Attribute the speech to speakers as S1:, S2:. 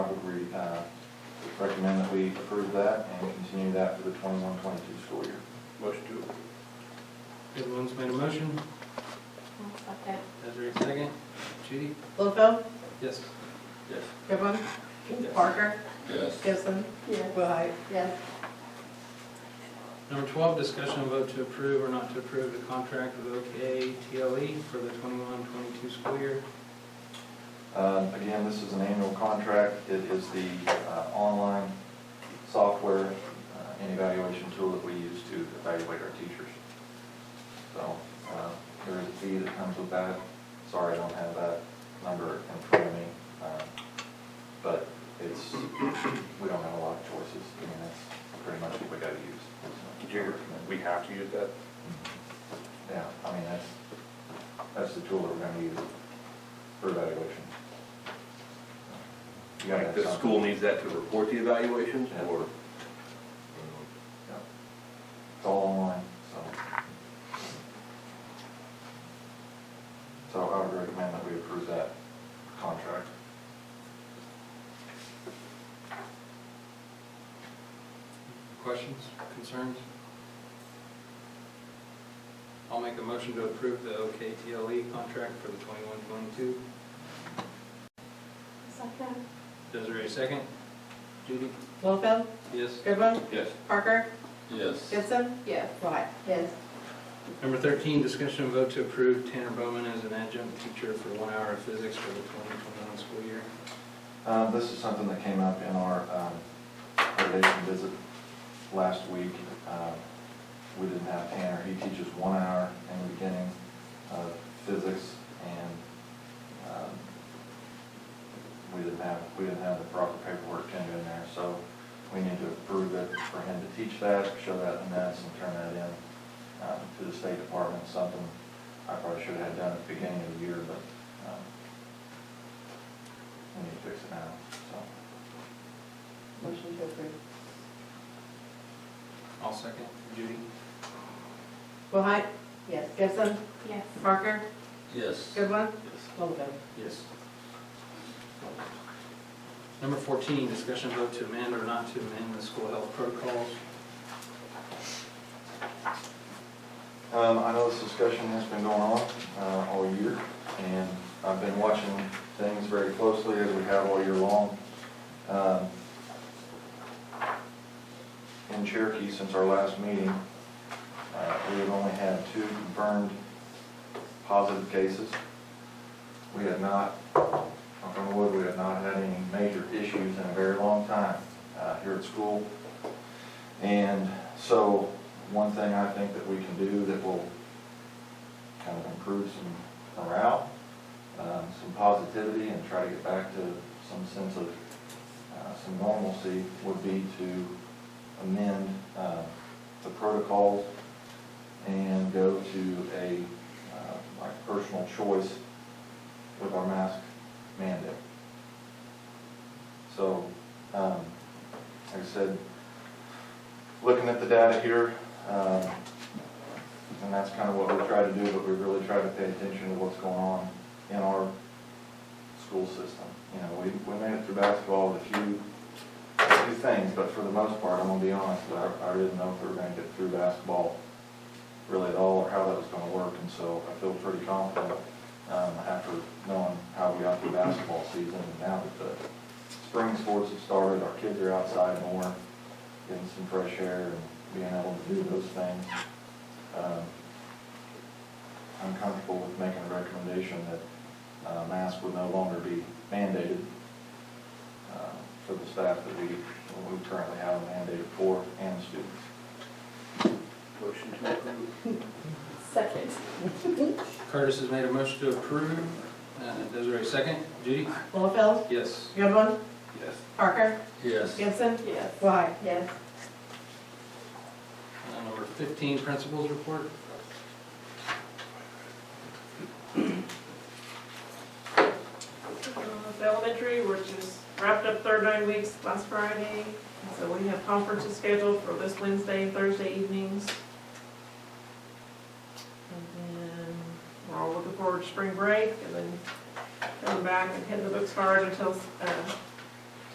S1: uh, recommend that we approve that and continue that for the 21-22 school year.
S2: Motion to approve.
S3: Everyone's made a motion.
S4: Second.
S3: Desiree, second. Judy?
S5: Littlefield,
S3: Yes.
S2: Yes.
S5: Goodwin, Parker,
S2: Yes.
S5: Gibson,
S4: Yes.
S5: Willhite.
S4: Yes.
S3: Number 12, discussion of vote to approve or not to approve the contract with OK TLE E for the 21-22 school year.
S1: Um, Again, this is an annual contract. It is the uh, online software uh, and evaluation tool that we use to evaluate our teachers. So uh, there is a fee that comes with that. Sorry, I don't have that number in front of me. uh, But it's, we don't have a lot of choices. I mean, that's pretty much what we got to use.
S2: Do you recommend we have to use that?
S1: Mm-hmm. Yeah, I mean, that's, that's the tool that we're gonna use for evaluation. You gotta
S2: Like
S1: have
S2: the
S1: something.
S2: school needs that to report the evaluations
S1: Yeah.
S2: or?
S1: Yeah. It's all online, so. So I would recommend that we approve that contract.
S3: Questions, concerns? I'll make a motion to approve the OK TLE E contract for the 21-22.
S4: Second.
S3: Desiree, second. Judy?
S5: Littlefield,
S3: Yes.
S5: Goodwin,
S2: Yes.
S5: Parker,
S2: Yes.
S5: Gibson,
S4: Yes.
S5: Willhite.
S4: Yes.
S3: Number 13, discussion and vote to approve Tanner Bowman as an adjunct teacher for one hour of physics for the 2021 school year.
S1: Um, this is something that came up in our, um, accreditation visit last week. Um, We didn't have Tanner, he teaches one hour in the beginning of physics, and, um, we didn't have, we didn't have the proper paperwork to do in there, so we need to approve it for him to teach that, show that in minutes, and turn that in, um, to the State Department, something I probably should have done at the beginning of the year, but, um, we need to fix it now, so.
S5: Motion to approve.
S3: I'll second. Judy?
S5: Willhite,
S4: Yes.
S5: Gibson,
S4: Yes.
S5: Parker,
S2: Yes.
S5: Goodwin, Littlefield.
S3: Yes. Number 14, discussion and vote to amend or not to amend the school health protocols.
S1: Um, I know this discussion has been going on, uh, all year, and I've been watching things very closely as we have all year long. Um, In Cherokee, since our last meeting, uh, we have only had two confirmed positive cases. We have not, knock on wood, we have not had any major issues in a very long time, uh, here at school. And so, one thing I think that we can do that will kind of improve some morale, um, some positivity, and try to get back to some sense of, uh, some normalcy would be to amend, uh, the protocols and go to a, uh, like personal choice with our mask mandate. So, um, like I said, looking at the data here, um, and that's kind of what we try to do, but we really try to pay attention to what's going on in our school system. You know, we, we made it through basketball with a few, a few things, but for the most part, I'm gonna be honest, I, I didn't know if we were gonna get through basketball really at all, or how that was gonna work, and so I feel pretty confident, um, after knowing how we got through basketball season, and now that the spring sports have started, our kids are outside more, getting some fresh air and being able to do those things. Um, I'm comfortable with making a recommendation that uh, masks would no longer be mandated uh, for the staff that we, we currently have mandated for and students.
S2: Motion to approve.
S4: Second.
S3: Curtis has made a motion to approve. Uh, Desiree, second. Judy?
S5: Littlefield,
S3: Yes.
S5: Goodwin,
S2: Yes.
S5: Parker,
S2: Yes.
S5: Gibson,
S4: Yes.
S5: Willhite.
S4: Yes.
S3: Uh, Number 15, principals report.
S6: Uh, The elementary, we're just wrapped up third nine weeks last Friday, and so we have conferences scheduled for this Wednesday and Thursday evenings. And then we're all looking forward to spring break, and then coming back and hitting the books hard until uh,